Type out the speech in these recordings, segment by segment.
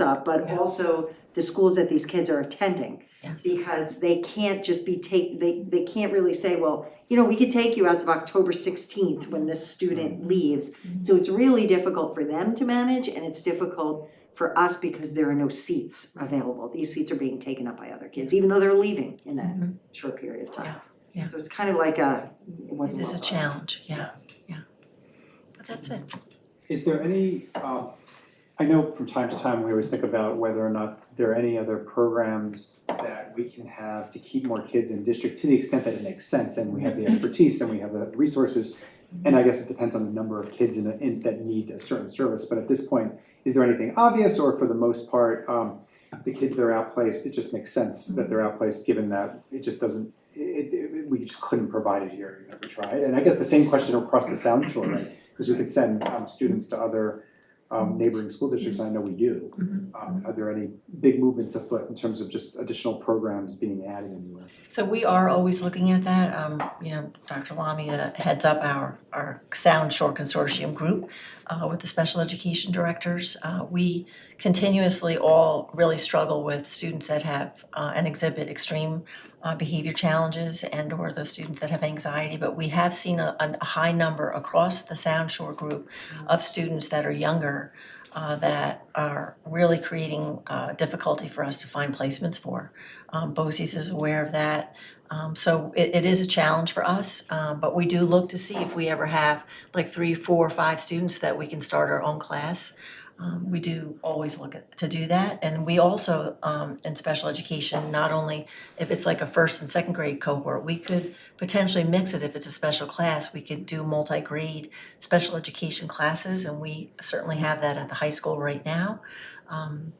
up, but Yeah. also the schools that these kids are attending. Yes. Because they can't just be take, they they can't really say, well, you know, we could take you as of October sixteenth when this Mm-hmm. student leaves. So it's really difficult for them to manage and it's difficult for us because there are no seats available. These seats are being taken up by other kids, even though they're leaving in a short period of time. Mm-hmm. Yeah, yeah. So it's kind of like a, it It wasn't is a well thought out. challenge, yeah, yeah. But that's it. Is there any, um, I know from time to time, we always think about whether or not there are any other programs that we can have to keep more kids in district to the extent that it makes sense and we have the expertise and we have the resources. And I guess it depends on the number of kids in, the- in, that need a certain service, but at this point, is there anything obvious or for the most part, um, the kids that are outplaced, it just makes sense that they're outplaced, given that it just doesn't, it, it, we just couldn't provide it here, you know, we tried. And I guess the same question across the Sound Shore, right? because we could send um students to other um neighboring school districts, and I know we do. Mhm. Um are there any big movements afoot in terms of just additional programs being added anywhere? So we are always looking at that, um, you know, Dr. Lamia heads up our, our Sound Shore Consortium group uh, with the special education directors. Uh, we continuously all really struggle with students that have, uh, and exhibit extreme uh, behavior challenges and or those students that have anxiety, but we have seen a, a high number across the Sound Shore group of students that are younger, uh, that are really creating, uh, difficulty for us to find placements for. Um, BOCES is aware of that. Um, so it, it is a challenge for us, um, but we do look to see if we ever have like three, four, or five students that we can start our own class. Um, we do always look at, to do that, and we also, um, in special education, not only if it's like a first and second grade cohort, we could potentially mix it if it's a special class, we could do multi-grade special education classes, and we certainly have that at the high school right now. Um,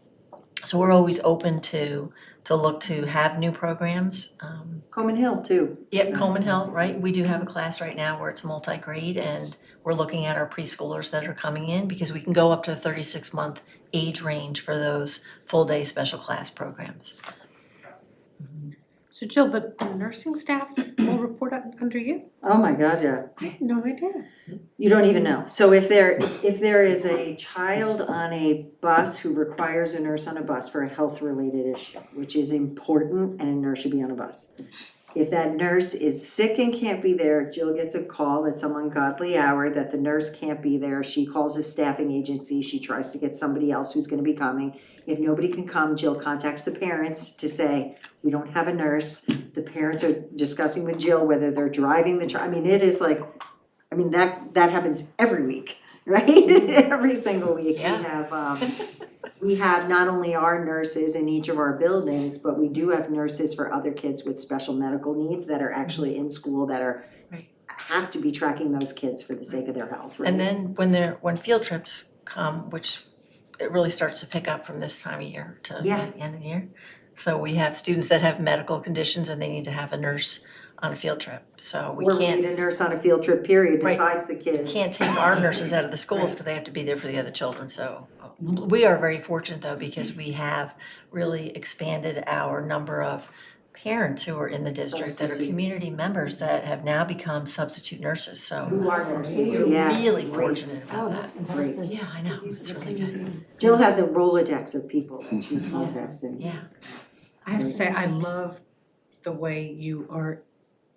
so we're always open to, to look to have new programs, um, Coman Hill too, yeah, Coleman Hill, right, we do have a class right now where it's multi-grade and we're looking at our preschoolers that are coming in because we can go up to a thirty-six month age range for those full-day special class programs. So Jill, the, the nursing staff will report un- under you? oh my god, yeah. I had no idea. You don't even know. So if there, if there is a child on a bus who requires a nurse on a bus for a health-related issue, which is important and a nurse should be on a bus. If that nurse is sick and can't be there, Jill gets a call at some ungodly hour that the nurse can't be there. She calls a staffing agency, she tries to get somebody else who's gonna be coming. If nobody can come, Jill contacts the parents to say, we don't have a nurse. The parents are discussing with Jill whether they're driving the child. I mean, it is like I mean, that, that happens every week, right? Every single week, we Yeah. have, um, we have not only our nurses in each of our buildings, but we do have nurses for other kids with special medical needs that are actually in school that are, Right. have to be tracking those kids for the sake of their health, right? And then when they're, when field trips come, which it really starts to pick up from this time of year to the Yeah. end of the year. So we have students that have medical conditions and they need to have a nurse on a field trip, so we Or we can't, need a nurse on a field trip, period, Right. besides the kids. can't take our nurses out of the schools because they have to be there for the other children, so. We are very fortunate though, because we have really expanded our number of parents who are in the district that are Substitutes. community members that have now become substitute nurses, so. Who are nurses, We're yeah. Oh, really great. fortunate about that. fantastic. Yeah, I know, it's really good, Jill has a Rolodex of people that she contacts and. yeah. I have to say, I love the way you are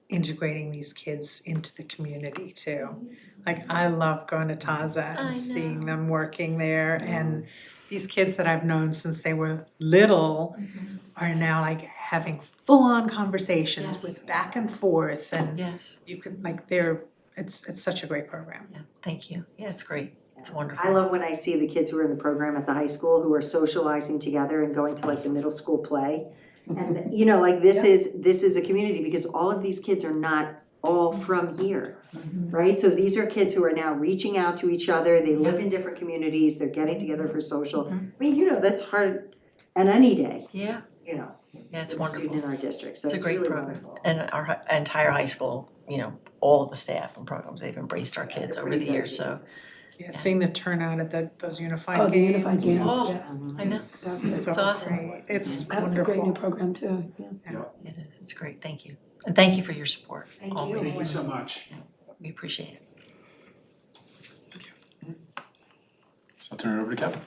integrating these kids into the community too. Mm-hmm. Like, I love going to Taza I and seeing them working there and these kids that I've known since they were little Mm-hmm. are now like having full-on conversations Yes. with back and forth and Yes, you can, like, they're, it's, it's such a great program. yeah, thank you, yeah, it's great, it's I wonderful, love when I see the kids who are in the program at the high school who are socializing together and going to like the middle school play. Mm-hmm. And you know, like this is, this is a community because all of these kids are not all from here, Mm-hmm. right? So these are kids who are now reaching out to each other, they live in different communities, they're getting together for social. I Mm-hmm. mean, you know, that's hard on any day, yeah, you know, yeah, it's with a wonderful. student in our district, so It's a it's great really program. wonderful. And our hi- entire high school, you know, all of the staff and programs, they've embraced our kids over the years, so. Yeah, seeing the turnout at the, those Oh, unified the games. unified games, Oh. yeah. I know, is so It's awesome. great. It's That was a great new wonderful. program too, yeah. it is, it's great, thank you. And thank you for your support, Thank you. always. Thank you so much. We appreciate it. So I'll turn it over to Kevin.